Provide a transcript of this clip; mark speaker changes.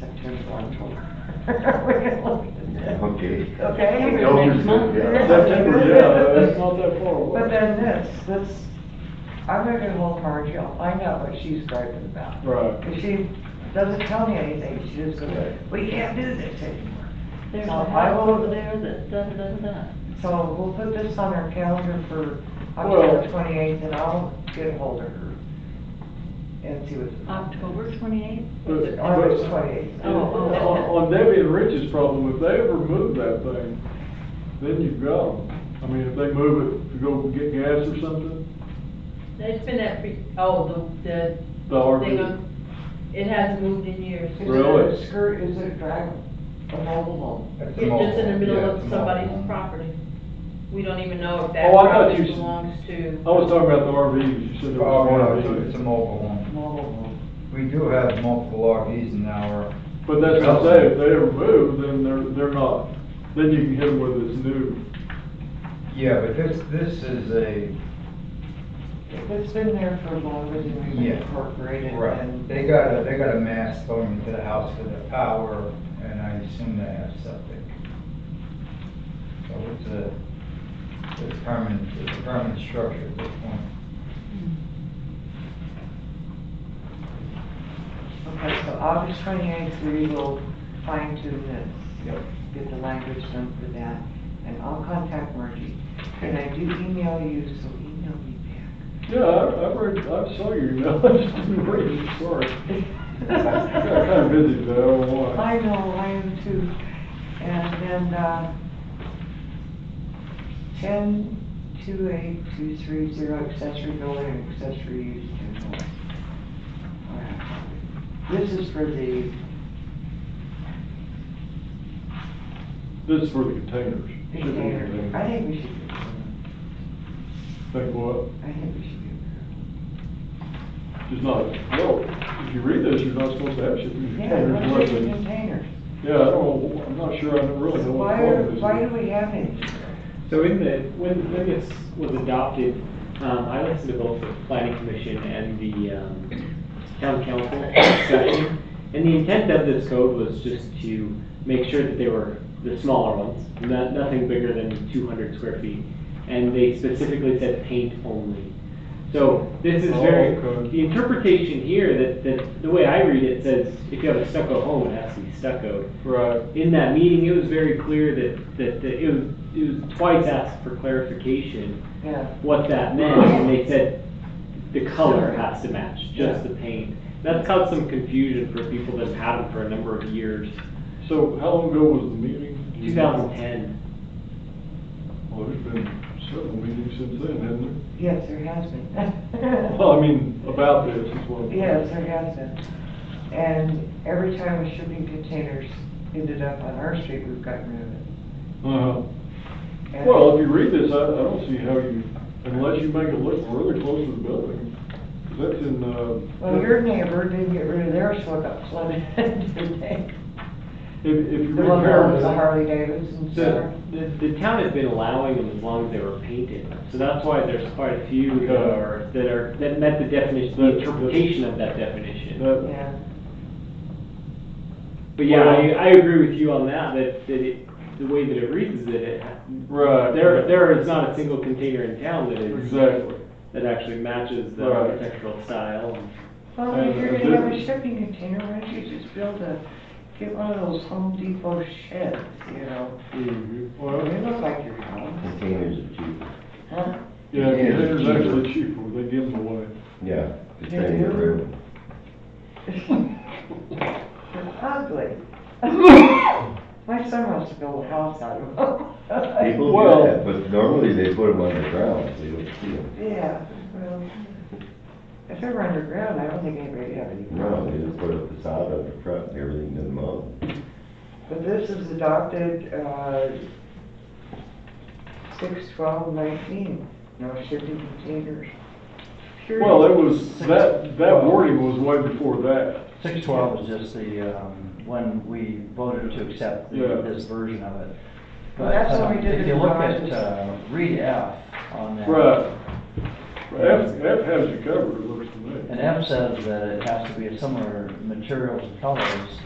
Speaker 1: Okay.
Speaker 2: Okay,
Speaker 1: The
Speaker 2: next
Speaker 1: elders
Speaker 2: month.
Speaker 1: did, yeah.
Speaker 3: September, yeah, that's not that far
Speaker 2: But
Speaker 3: away.
Speaker 2: then this, this, I'm not gonna hold her jail, I know what she's griping about.
Speaker 3: Right.
Speaker 2: But she doesn't tell me anything, she just goes, we can't do this anymore.
Speaker 4: There's
Speaker 2: Uh,
Speaker 4: a
Speaker 2: I
Speaker 4: house
Speaker 2: will-
Speaker 4: over there that done, done, done.
Speaker 2: So we'll put this on our calendar for October
Speaker 3: Well-
Speaker 2: twenty-eighth, and I'll get hold of her and see what's.
Speaker 4: October twenty-eighth?
Speaker 3: But-
Speaker 2: August
Speaker 3: but-
Speaker 2: twenty-eighth.
Speaker 4: Oh,
Speaker 3: On
Speaker 4: oh.
Speaker 3: on Debbie and Rich's problem, if they ever move that thing, then you've got 'em. I mean, if they move it to go get gas or something,
Speaker 5: It's been that, pre- oh, the,
Speaker 3: the
Speaker 5: the,
Speaker 3: RV.
Speaker 5: thing on- it hasn't moved in years.
Speaker 2: Is it a
Speaker 3: Really?
Speaker 2: Skirt, is it a drag, a mobile home?
Speaker 5: It's just in the middle of somebody's property. We don't even know if that
Speaker 3: Oh, I thought you
Speaker 5: property
Speaker 3: s- Oh,
Speaker 5: belongs to.
Speaker 3: I was talking about the RVs, you said there was an RV.
Speaker 6: Oh, It's a mobile home.
Speaker 2: Mobile home.
Speaker 6: We do have multiple RVs in our,
Speaker 3: But that's what I'm saying, if they ever move, then they're, they're not, then you can hit them with this new,
Speaker 6: yeah, but this, this is a,
Speaker 2: If it's been there for longer than we've
Speaker 6: Yeah.
Speaker 2: incorporated,
Speaker 6: right,
Speaker 2: then.
Speaker 6: they got a, they got a mast going into the house for the power, and I assume they have septic. So it's a, it's a permanent, it's a permanent structure at this point.
Speaker 2: Okay, so August twenty-eighth, we will fine tune this. Get the language done for that, and I'll contact Margie. And I do email you, so email me
Speaker 3: yeah, I, I read, I saw your email, I just didn't read it, sorry. I got kinda
Speaker 2: back.
Speaker 3: busy today, I don't know why.
Speaker 2: I know, I am too. And then, uh, ten, two, eight, two, three, zero, accessory building, and accessory use. in the- Alright. This is for the
Speaker 3: This is for the containers. shipping
Speaker 2: container. I think we should do it.
Speaker 3: Think what?
Speaker 2: I think we should do
Speaker 3: Just not, well, if you read this, you're not supposed to have shipping
Speaker 2: it. Yeah,
Speaker 3: containers,
Speaker 2: let's do
Speaker 3: whether-
Speaker 2: containers.
Speaker 3: yeah, I don't, know, I'm not sure, I don't really know what
Speaker 2: Why,
Speaker 3: the
Speaker 2: are-
Speaker 3: problem is.
Speaker 2: why do we have it?
Speaker 7: So in the, when, when this was adopted, um, I listened to both the planning commission and the, um, town council discussion. And the intent of this code was just to make sure that they were the smaller ones, no- nothing bigger than two hundred square feet. And they specifically said paint only. So this is
Speaker 3: Oh,
Speaker 7: very,
Speaker 3: okay.
Speaker 7: the interpretation here that, that, the way I read it says, if you have a stucco home, it has to be stuccoed
Speaker 3: Right,
Speaker 7: in that meeting, it was very clear that, that, that it was, it was twice asked for clarification
Speaker 2: Yeah.
Speaker 7: what that meant, and they said the color has to match, just the paint. That's caused some confusion for people that have had them for a number of years.
Speaker 3: so how long ago was the meeting? Do you
Speaker 7: Two
Speaker 3: know?
Speaker 7: thousand ten,
Speaker 3: Well, there's been several meetings since then, hasn't there?
Speaker 2: Yes, there has been.
Speaker 3: Well, I mean, about this is what.
Speaker 2: Yes, there has been. And every time a shipping container's ended up on our street, we've gotten rid of it.
Speaker 3: Uh-huh.
Speaker 2: And-
Speaker 3: Well, if you read this, I, I don't see how you, unless you make it look really close to the building, 'cause that's in, uh.
Speaker 2: Well, your neighbor didn't get rid of theirs, so it got flooded, didn't they?
Speaker 3: If, if you
Speaker 2: The one that was a
Speaker 3: read
Speaker 2: Harley Davidson,
Speaker 7: so
Speaker 2: so,
Speaker 7: the, the town has been allowing them as long as they were painted. So that's why there's quite a few that are, that are, that met the definition, the interpretation of that definition.
Speaker 3: that, that,
Speaker 2: yeah.
Speaker 7: But yeah, I, I agree with you on that, that, that it, the way that it reads is that it,
Speaker 3: right.
Speaker 7: there, there is not a single container in town that is,
Speaker 3: Exactly.
Speaker 7: that actually matches the
Speaker 3: Right.
Speaker 7: architectural style.
Speaker 2: Well, if you're gonna have a shipping container, why don't you just build a, get one of those Home Depot sheds, you know?
Speaker 3: Mm-hmm. Well,
Speaker 2: They look like your home,
Speaker 1: Containers are cheap,
Speaker 2: huh?
Speaker 3: yeah,
Speaker 1: Yeah.
Speaker 3: containers actually cheaper, they give them away.
Speaker 1: yeah, it's
Speaker 2: Yeah,
Speaker 1: very
Speaker 2: yeah.
Speaker 1: rude.
Speaker 2: They're ugly. My son wants to build a house out of them.
Speaker 1: People
Speaker 3: Well-
Speaker 1: do that, but normally they put them underground, so you don't see them.
Speaker 2: Yeah, well, if they were underground, I don't think anybody would have any
Speaker 1: No, they
Speaker 2: problem.
Speaker 1: just put a facade on the front and everything doesn't move.
Speaker 2: But this is adopted, uh, six, twelve, nineteen, no shipping containers. Period.
Speaker 3: Well, it was, that, that wording was way before that.
Speaker 8: Six twelve is just the, um, when we voted to accept
Speaker 3: Yeah.
Speaker 8: the- this version of it.
Speaker 2: Well, that's
Speaker 8: But,
Speaker 2: when we
Speaker 8: uh,
Speaker 2: did
Speaker 8: If
Speaker 2: the
Speaker 8: you look
Speaker 2: garages.
Speaker 8: at, uh, read F on that.
Speaker 3: Right. F, F has you covered, it looks to me.
Speaker 8: And F says that it has to be of similar materials and colors